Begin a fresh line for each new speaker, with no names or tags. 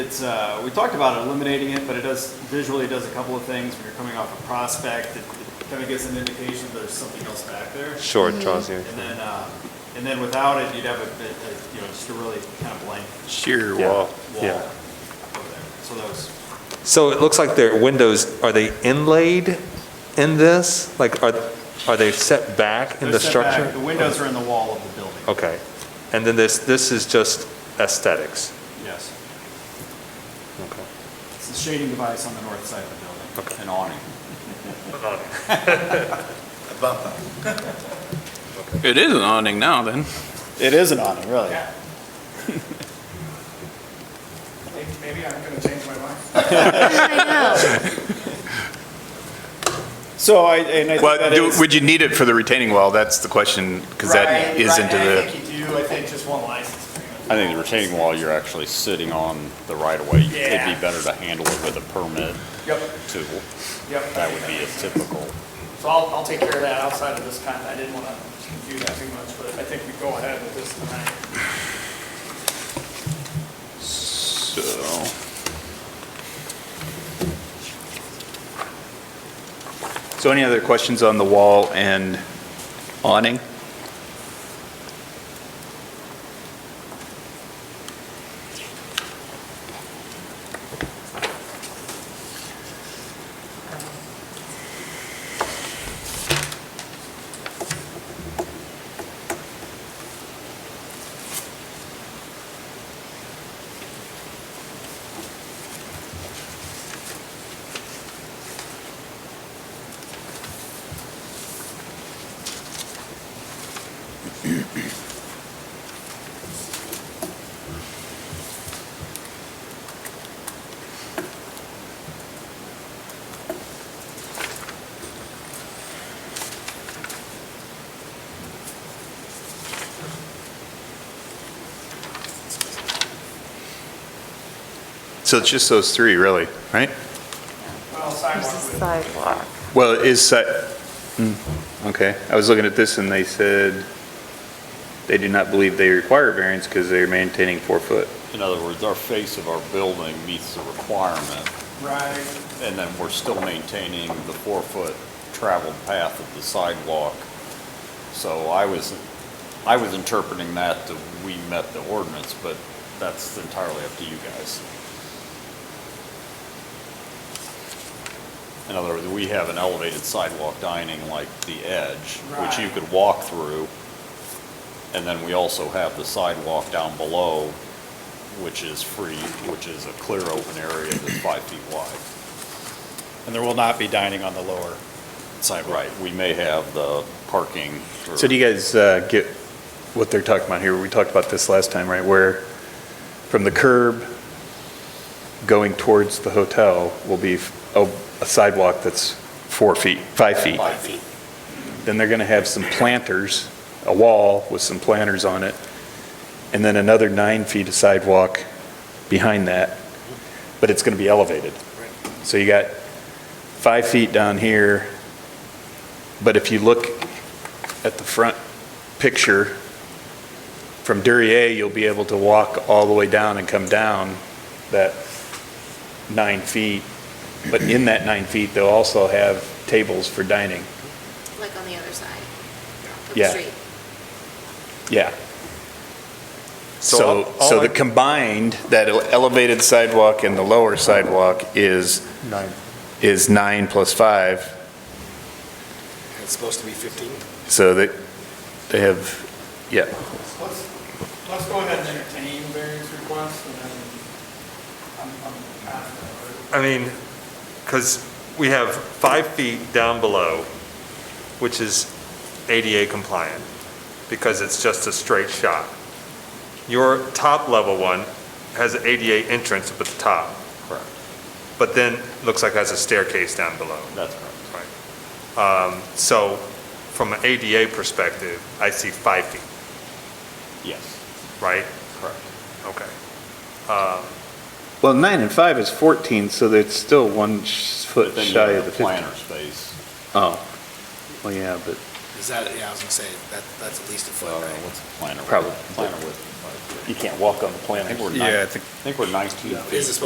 It's, uh, we talked about eliminating it, but it does, visually it does a couple of things. When you're coming off a prospect, it kind of gives an indication there's something else back there.
Sure, it draws you.
And then, uh, and then without it, you'd have a, bit, uh, you know, just a really kind of blank
Sheer
Yeah.
wall.
wall
Yeah.
over there. So that was,
So it looks like their windows, are they inlaid in this? Like, are, are they set back in
they're
the
set back.
structure?
The windows are in the wall of the building.
Oh.
Okay. And then this, this is just aesthetics?
Yes.
Okay.
It's a shading device on the north side of the building.
Okay.
An awning.
It is an awning now, then.
It is an awning, really.
Maybe I'm going to change my mind.
I
So I, and I think
Well,
that
do-
is.
would you need it for the retaining wall? That's the question, because that is into
I
the,
think you do, I think just one license agreement.
I think the retaining wall, you're actually sitting on the right of way.
Yeah.
It'd be better to handle it with a permit
Yep,
tool.
yep.
That would be a typical.
So I'll, I'll take care of that outside of this time. I didn't want to confuse that too much, but I think we go ahead with this tonight.
So.
so any other questions on the wall and awning? So it's just those three, really, right?
Well,
know.
sidewalk
This is
with.
sidewalk.
Well, it is set, hmm, okay. I was looking at this and they said they do not believe they require variance because they're maintaining four foot.
In other words, our face of our building meets the requirement,
Right,
and then we're still maintaining the four-foot traveled path of the sidewalk. So I was, I was interpreting that that we met the ordinance, but that's entirely up to you guys. In other words, we have an elevated sidewalk dining like the edge, which you
Right.
could walk through. And then we also have the sidewalk down below, which is free, which is a clear open area that's five feet wide.
And there will not be dining on the lower sidewalk.
Right, we may have the parking. for-
So do you guys uh, get what they're talking about here? We talked about this last time, right? Where from the curb going towards the hotel will be a a sidewalk that's four feet, five feet.
Five feet.
Then they're going to have some planters, a wall with some planters on it, and then another nine feet of sidewalk behind that, but it's going to be elevated. So you got five feet down here, but if you look at the front picture, from Duryea, you'll be able to walk all the way down and come down that nine feet, but in that nine feet, they'll also have tables for dining.
like on the other side of the
Yeah.
street.
Yeah.
So
So,
all-
so
all I-
the combined, that elevated sidewalk and the lower sidewalk is,
Nine.
is nine plus five,
It's supposed to be 15?
so that they have, yeah.
let's, let's go ahead and entertain variance requests and then I'm, I'm confident.
I mean, because we have five feet down below, which is ADA compliant, because it's just a straight shot. Your top level one has an ADA entrance up at the top.
Correct.
But then, looks like has a staircase down below.
That's correct.
So, from an ADA perspective, I see five feet,
Yes,
right?
correct.
Okay. Uh,
Well, nine and five is 14, so that's still one sh-
But
foot
then you
shy
have
of
the
the 15.
planter space.
Oh, well, yeah, but
Is that, yeah, I was gonna say, that, that's at least a
Well,
foot, right?
uh, what's a planter? width?
Probably.
Planter width
you can't walk on the
I think
planters.
we're nine-
Yeah, I
I
think-
think we're 19 feet.
Is it